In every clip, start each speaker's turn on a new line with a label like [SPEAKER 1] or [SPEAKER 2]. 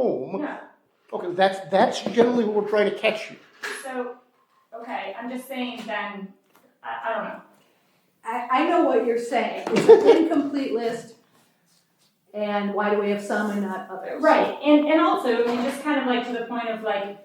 [SPEAKER 1] home.
[SPEAKER 2] No,
[SPEAKER 1] Okay, that's, that's generally what we're trying to catch you.
[SPEAKER 2] so, okay, I'm just saying then, I, I don't know.
[SPEAKER 3] I, I know what you're saying, it's an incomplete list, and why do we have some and not others?
[SPEAKER 2] Right, and, and also, I mean, just kind of like to the point of like,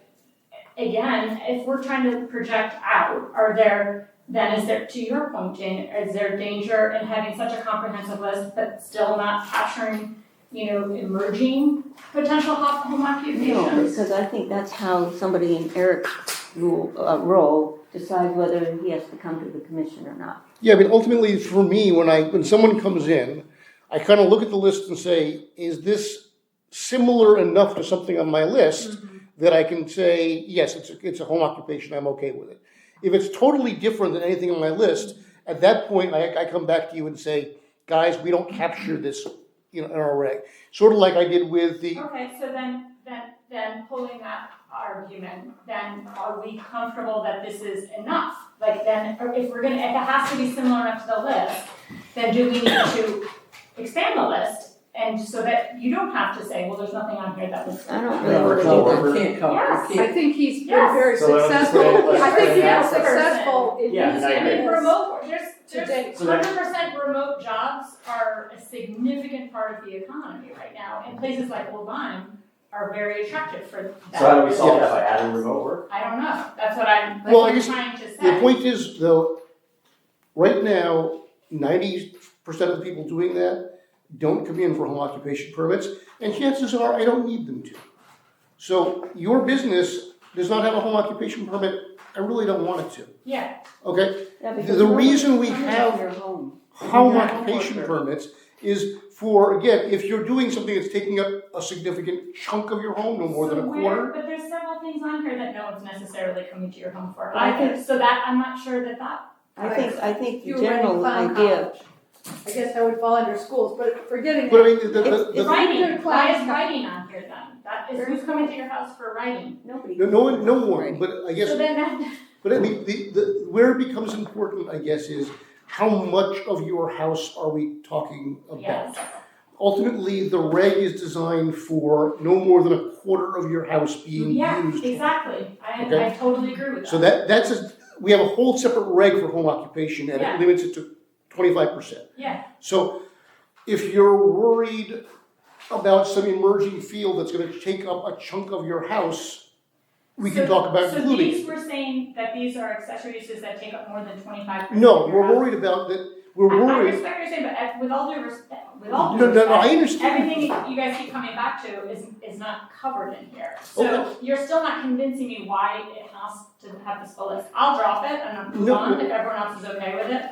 [SPEAKER 2] again, if we're trying to project out, are there, then is there, to your point, Jane, is there danger in having such a comprehensive list but still not capturing, you know, emerging potential ho- home
[SPEAKER 4] No,
[SPEAKER 2] occupations?
[SPEAKER 4] because I think that's how somebody in Eric's rule, uh, role decides whether he has to come to the commission or not.
[SPEAKER 1] Yeah, but ultimately, for me, when I, when someone comes in, I kind of look at the list and say, is this similar enough to something on my list that I can say, yes, it's, a- it's a home occupation, I'm okay with it. If it's totally different than anything on my list, at that point, I, I come back to you and say, guys, we don't capture this, you know, in our reg. Sort of like I did with the,
[SPEAKER 2] Okay, so then, then, then pulling that argument, then are we comfortable that this is enough? Like then, or if we're gonna, if it has to be similar enough to the list, then do we need to expand the list? And so that you don't have to say, well, there's nothing on here that was.
[SPEAKER 4] I don't really
[SPEAKER 5] No,
[SPEAKER 4] want to do that.
[SPEAKER 5] we can't, we can't cover,
[SPEAKER 2] Yes,
[SPEAKER 5] we
[SPEAKER 3] I
[SPEAKER 5] can't.
[SPEAKER 3] think he's been
[SPEAKER 2] Yes.
[SPEAKER 3] very
[SPEAKER 6] So that was
[SPEAKER 3] successful,
[SPEAKER 6] great.
[SPEAKER 3] I think he's been
[SPEAKER 2] Yes.
[SPEAKER 3] successful in
[SPEAKER 6] Yeah,
[SPEAKER 3] these
[SPEAKER 6] I
[SPEAKER 2] I
[SPEAKER 6] agree.
[SPEAKER 2] mean,
[SPEAKER 3] areas.
[SPEAKER 2] remote, there's,
[SPEAKER 3] Today.
[SPEAKER 2] there's
[SPEAKER 6] So that-
[SPEAKER 2] hundred percent remote jobs are a significant part of the economy right now. And places like Old Lyme are very attractive for that.
[SPEAKER 6] So how do we solve that by adding remote work?
[SPEAKER 2] I don't know, that's what I'm, that's
[SPEAKER 1] Well, I
[SPEAKER 2] what I'm
[SPEAKER 1] just-
[SPEAKER 2] trying to say.
[SPEAKER 1] The point is, though, right now, ninety percent of the people doing that don't come in for home occupation permits, and chances are, I don't need them to. So your business does not have a home occupation permit, I really don't want it to,
[SPEAKER 2] Yeah,
[SPEAKER 1] okay?
[SPEAKER 4] Yeah,
[SPEAKER 1] The-
[SPEAKER 4] because
[SPEAKER 1] the
[SPEAKER 4] nobody
[SPEAKER 1] reason we
[SPEAKER 4] comes to
[SPEAKER 1] have
[SPEAKER 4] your home.
[SPEAKER 1] Home
[SPEAKER 4] Yeah, home
[SPEAKER 1] occupation
[SPEAKER 4] worker.
[SPEAKER 1] permits is for, again, if you're doing something that's taking up a significant chunk of your home, no more than a
[SPEAKER 2] So where-
[SPEAKER 1] quarter.
[SPEAKER 2] But there's several things on here that no one's necessarily coming to your home for
[SPEAKER 4] I
[SPEAKER 2] either, so that, I'm not sure that that,
[SPEAKER 4] I think, I think the
[SPEAKER 3] You were in
[SPEAKER 4] general
[SPEAKER 3] Clown
[SPEAKER 4] idea,
[SPEAKER 3] College. I guess that would fall under schools, but forgetting
[SPEAKER 1] But I
[SPEAKER 3] that,
[SPEAKER 1] mean, the, the,
[SPEAKER 4] It's-
[SPEAKER 1] the-
[SPEAKER 4] it's-
[SPEAKER 2] writing, why
[SPEAKER 3] class-
[SPEAKER 2] is writing on here then? That is, who's coming to your house for writing?
[SPEAKER 4] nobody.
[SPEAKER 1] no, no one, no
[SPEAKER 4] comes
[SPEAKER 1] one, but I guess.
[SPEAKER 2] So then that,
[SPEAKER 1] But I mean, the, the, where it becomes important, I guess, is how much of your house are we talking about?
[SPEAKER 2] yes,
[SPEAKER 1] Ultimately, the reg is designed for no more than a quarter of your house being
[SPEAKER 2] yeah,
[SPEAKER 1] used.
[SPEAKER 2] exactly, I, I
[SPEAKER 1] Okay.
[SPEAKER 2] totally agree with that.
[SPEAKER 1] So that that's a, we have a whole separate reg for home occupation, and
[SPEAKER 2] Yeah.
[SPEAKER 1] it limits it to twenty five percent.
[SPEAKER 2] Yeah.
[SPEAKER 1] So if you're worried about some emerging field that's going to take up a chunk of your house, we can
[SPEAKER 2] So-
[SPEAKER 1] talk about
[SPEAKER 2] So
[SPEAKER 1] including.
[SPEAKER 2] these were saying that these are accessory uses that take up more than twenty-five percent
[SPEAKER 1] no, we're worried about that. We're
[SPEAKER 2] I, I
[SPEAKER 1] worried.
[SPEAKER 2] respect what you're saying, but uh, with all due respect, with all due
[SPEAKER 1] No, no,
[SPEAKER 2] respect,
[SPEAKER 1] no, I understand.
[SPEAKER 2] everything you guys keep coming back to is, is not covered in here.
[SPEAKER 1] Okay.
[SPEAKER 2] So you're still not convincing me why it has to have this full list. I'll drop it and I'll move
[SPEAKER 1] No,
[SPEAKER 2] on if everyone else is okay with it.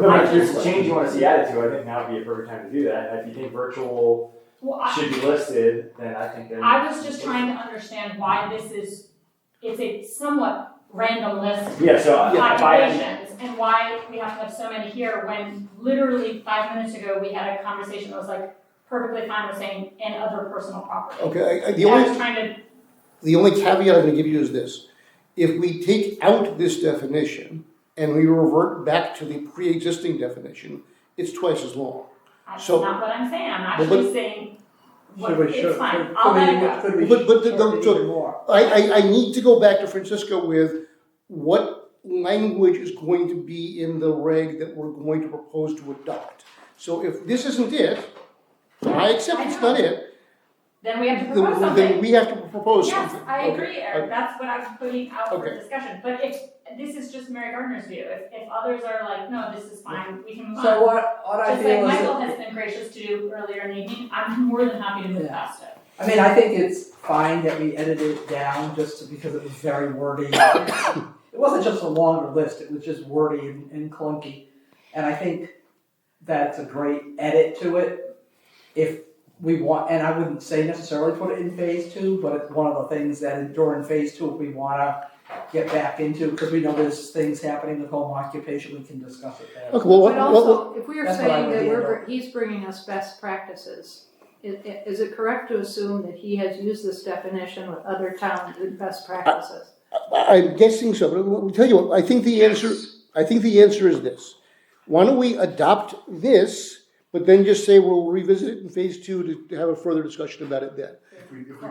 [SPEAKER 6] No, but if there's a change you wanna see added to, I think now would be a perfect time to do that, and if you think virtual
[SPEAKER 2] Well, I,
[SPEAKER 6] should be listed, then I think then.
[SPEAKER 2] I was just trying to understand why this is, it's a somewhat random list
[SPEAKER 6] Yeah, so I,
[SPEAKER 2] of
[SPEAKER 6] if I,
[SPEAKER 2] populations and why we have to have so many here when literally five minutes ago, we had a conversation that was like perfectly fine with saying and other personal property.
[SPEAKER 1] Okay, I- I- the
[SPEAKER 2] I
[SPEAKER 1] only,
[SPEAKER 2] was trying to,
[SPEAKER 1] the only caveat I'm gonna give you is this. If we take out this definition and we revert back to the pre-existing definition, it's twice as long.
[SPEAKER 2] that's
[SPEAKER 1] So-
[SPEAKER 2] not what I'm saying, I'm
[SPEAKER 1] Well, but-
[SPEAKER 2] actually saying, what,
[SPEAKER 5] Should we, should,
[SPEAKER 2] it's fine,
[SPEAKER 5] could-
[SPEAKER 2] I'll let it go.
[SPEAKER 5] could we, could we?
[SPEAKER 1] But- but the- the-
[SPEAKER 5] could we
[SPEAKER 1] so-
[SPEAKER 5] do more?
[SPEAKER 1] I, I, I need to go back to Francisco with what language is going to be in the reg that we're going to propose to adopt. So if this isn't it, I accept it's not it,
[SPEAKER 2] Then we have to propose
[SPEAKER 1] then,
[SPEAKER 2] something.
[SPEAKER 1] then we have to propose
[SPEAKER 2] Yes,
[SPEAKER 1] something.
[SPEAKER 2] I
[SPEAKER 1] Okay,
[SPEAKER 2] agree, Eric, that's what I was putting out for
[SPEAKER 1] Okay.
[SPEAKER 2] discussion, but if, this is just Mary Gardner's view, if, if others are like, no, this is fine, we can move on.
[SPEAKER 5] So what, what I
[SPEAKER 2] Just like
[SPEAKER 5] feel is that.
[SPEAKER 2] Michael has been gracious to do earlier in the evening, I'm more than happy to move
[SPEAKER 5] Yeah.
[SPEAKER 2] past it.
[SPEAKER 5] I mean, I think it's fine that we edited it down just to- because it was very wordy. It wasn't just a longer list, it was just wordy and, and clunky. And I think that's a great edit to it. If we want, and I wouldn't say necessarily put it in phase two, but it's one of the things that during phase two, if we wanna get back into, because we know there's things happening with home occupation, we can discuss it there.
[SPEAKER 1] Okay, well, what,
[SPEAKER 3] but
[SPEAKER 1] what,
[SPEAKER 3] also, if we are
[SPEAKER 5] That's what I
[SPEAKER 3] saying
[SPEAKER 5] would
[SPEAKER 3] that
[SPEAKER 5] handle.
[SPEAKER 3] we're, he's bringing us best practices, i- i- is it correct to assume that he has used this definition with other towns with best practices?
[SPEAKER 1] I- I'm guessing so, but I'll tell you what, I think the answer, I think the answer is this. Why don't we adopt this, but then just say we'll revisit it in phase two to- to have a further discussion about it then?
[SPEAKER 6] if we, if we